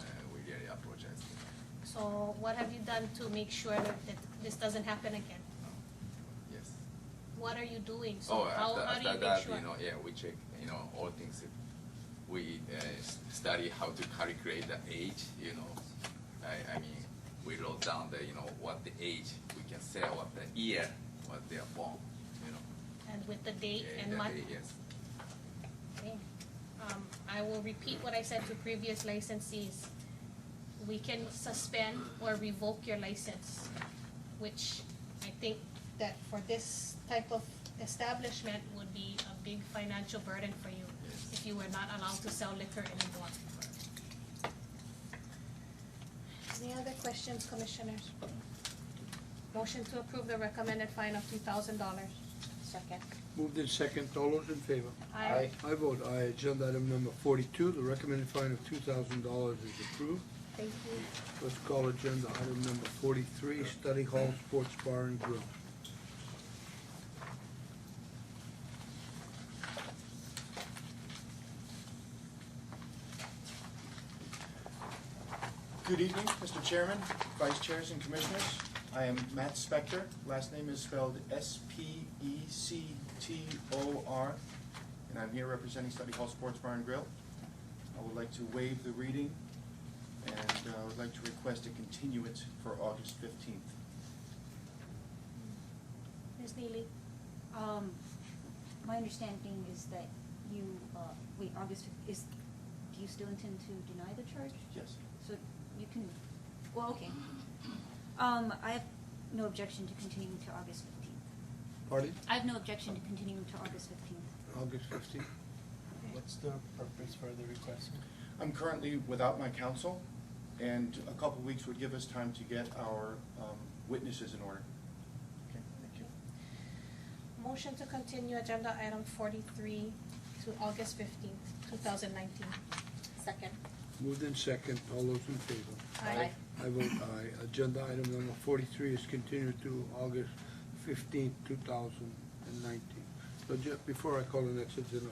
Uh, So what have you done to make sure that that this doesn't happen again? Yes. What are you doing? So Oh, how, after, how do you after make that, sure? you know, yeah, we check, you know, all things. We uh, s- study how to calculate the age, you know. I, I mean, we wrote down the, you know, what the age we can say, what the year, what they are born, you know. And with the date Yeah, and the month? day, Yes. Okay. Um, I will repeat what I said to previous licensees. We can suspend or revoke your license, which I think that for this type of establishment would be a big financial burden for you if you were not allowed to sell liquor anymore. Any other questions, commissioners? Motion to approve the recommended fine of two thousand dollars. Second. Moved in second, all those in favor? I I vote aye. Agenda item number forty-two, the recommended fine of two thousand dollars is approved. Thank you. Let's call agenda item number forty-three, Study Hall Sports Bar and Grill. Good evening, Mr. Chairman, Vice Chairs and Commissioners. I am Matt Spector. Last name is spelled E S-P-E-C-T-O-R, and I'm here representing Study Hall Sports Bar and Grill. I would like to waive the reading, and uh, I would like to request a continuance for August 15th. Ms. Neely? Um, my understanding is that you, uh, wait, August, fif- is, do you still intend to deny the charge? Yes. So you can, well, okay. Um, I have no objection to continuing to August fifteenth. Pardon? I have no objection to continuing to August fifteenth. August fifteenth. What's the purpose for the request? I'm currently without my counsel, and a couple weeks would give us time to get our um, witnesses in order. Okay, thank you. Motion to continue agenda item forty-three to August fifteenth, two thousand nineteen. Second. Moved in second, all those in favor? Aye. I vote aye. Agenda item number forty-three is continued to August fifteenth, two thousand and nineteen. So just before I call the next agenda,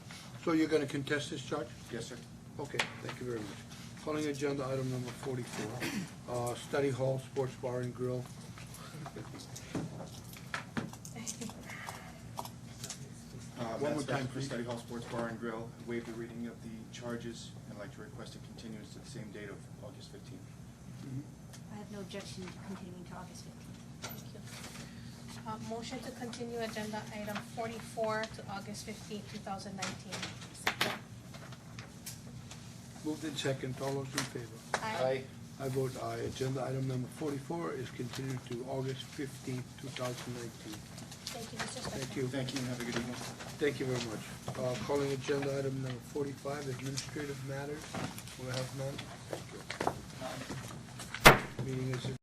so you're gonna contest this charge? Yes, sir. Okay, thank you very much. Calling agenda item number forty-four, uh, Study Hall Sports Bar and Grill. Uh, One Matt more time, Spector for please. Study Hall Sports Bar and Grill, waive the reading of the charges, and like to request a continuance to the same date of August fifteenth. Mm-hmm. I have no objection to continuing to August fifteenth. Thank you. Uh, motion to continue agenda item forty-four to August fifteenth, two thousand nineteen. Moved in second, all those in favor? Aye. I vote aye. Agenda item number forty-four is continued to August fifteenth, two thousand nineteen. Thank you, Mr. Spector. Thank you. Thank you, and have a good evening. Thank you very much. Uh, calling agenda item number forty-five, Administrative Matters. We have none. Thank you. Meeting is adjourned.